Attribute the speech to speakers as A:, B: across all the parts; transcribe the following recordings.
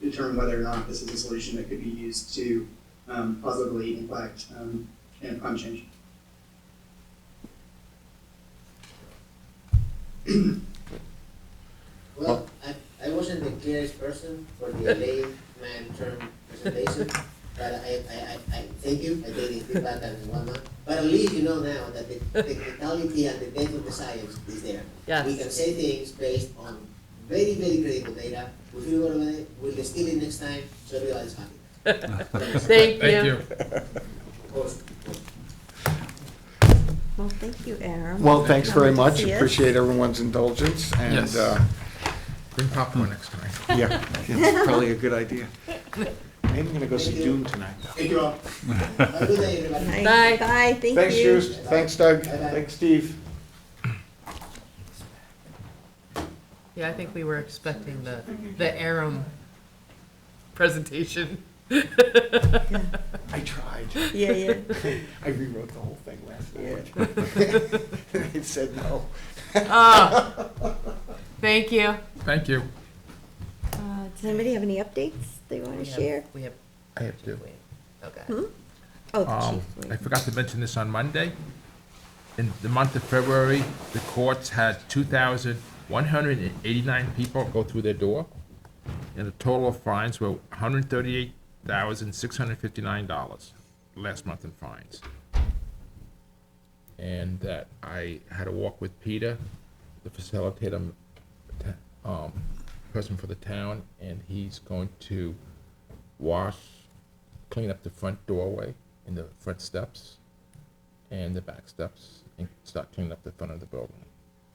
A: determine whether or not this is a solution that could be used to um, positively impact um, and climate change.
B: Well, I, I wasn't the clearest person for the layman term presentation, but I, I, I, I thank you, I gave it feedback and whatnot. But at least you know now that the technicality and the depth of the science is there. We can
C: Yes,
B: say things based on very, very credible data, we feel good about it, we'll steal it next time, so everybody's happy. Thanks.
C: thank
D: Thank
C: you.
D: you.
B: Of course, of course.
E: Well, thank you, Aaron.
F: Well, thanks very
E: Come to
F: much.
E: see us.
F: Appreciate everyone's indulgence and,
D: Yes.
F: uh,
D: Bring popcorn next time.
F: yeah, it's probably a good idea. Maybe I'm gonna go see
B: Thank you.
F: Dune tonight.
B: Thank you all. Have a good day, everybody.
C: Bye.
E: Nice. Bye, thank you.
F: Thanks, Bruce. Thanks, Doug.
B: Bye-bye.
F: Thanks, Steve.
C: Yeah, I think we were expecting the, the Aram presentation.
F: I tried.
E: Yeah, yeah.
F: I rewrote the whole thing last night. It said no.
C: Ah, Thank you.
D: Thank you.
E: Uh, Does anybody have any updates they want to
C: We have-
E: share?
C: We have,
D: I have to.
C: okay.
E: Oh, the
D: Um,
E: chief.
D: I
E: wait.
D: forgot to mention this on Monday. In the month of February, the courts had two thousand one hundred and eighty-nine people go through their door. And the total of fines were hundred and thirty-eight thousand six hundred and fifty-nine dollars last month in fines. And that I had a walk with Peter, the facilitator, um, person for the town, and he's going to wash clean up the front doorway and the front steps and the back steps and start cleaning up the front of the building.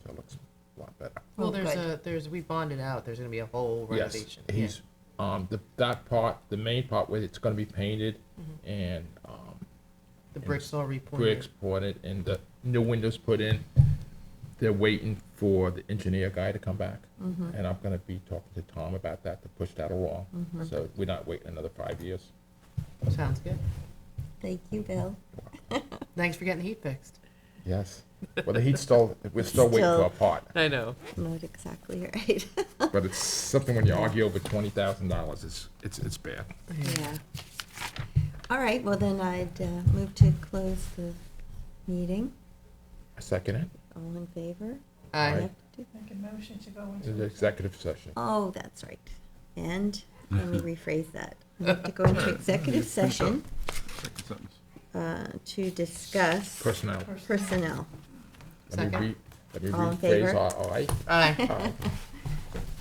D: So it looks a lot better.
C: Well,
E: Oh,
C: there's
E: good.
C: a, there's, we bonded out, there's gonna be a whole renovation.
D: Yes,
C: yeah.
D: he's, um, the, that part, the main part where it's gonna be painted
C: Mm-hmm.
D: and, um,
C: The bricks all repointed.
D: bricks poured and the new windows put in. They're waiting for the engineer guy to come back.
C: Mm-hmm.
D: And I'm gonna be talking to Tom about that to push that along.
C: Mm-hmm.
D: So we're not waiting another five years.
C: Sounds good.
E: Thank you, Bill.
C: Thanks for getting the heat fixed.
D: Yes. Well, the heat's still, we're still waiting for
E: Still.
D: a part.
C: I know.
E: Not exactly right.
D: But it's something when you argue over twenty thousand dollars, it's, it's, it's bad.
E: Yeah. All right, well then I'd uh, move to close the meeting.
D: Second it,
E: All in favor? I
C: I,
D: Right.
E: have to do-
G: Make a motion to go
D: It's
G: into.
D: an executive session.
E: Oh, that's right. And, let me rephrase that. We have to go into executive session uh, to discuss
D: Personnel.
E: personnel.
D: Let me
C: Second.
D: re- Let me
E: All in
D: rephrase,
E: favor?
D: our- all right? Uh,
C: I.
D: Aye.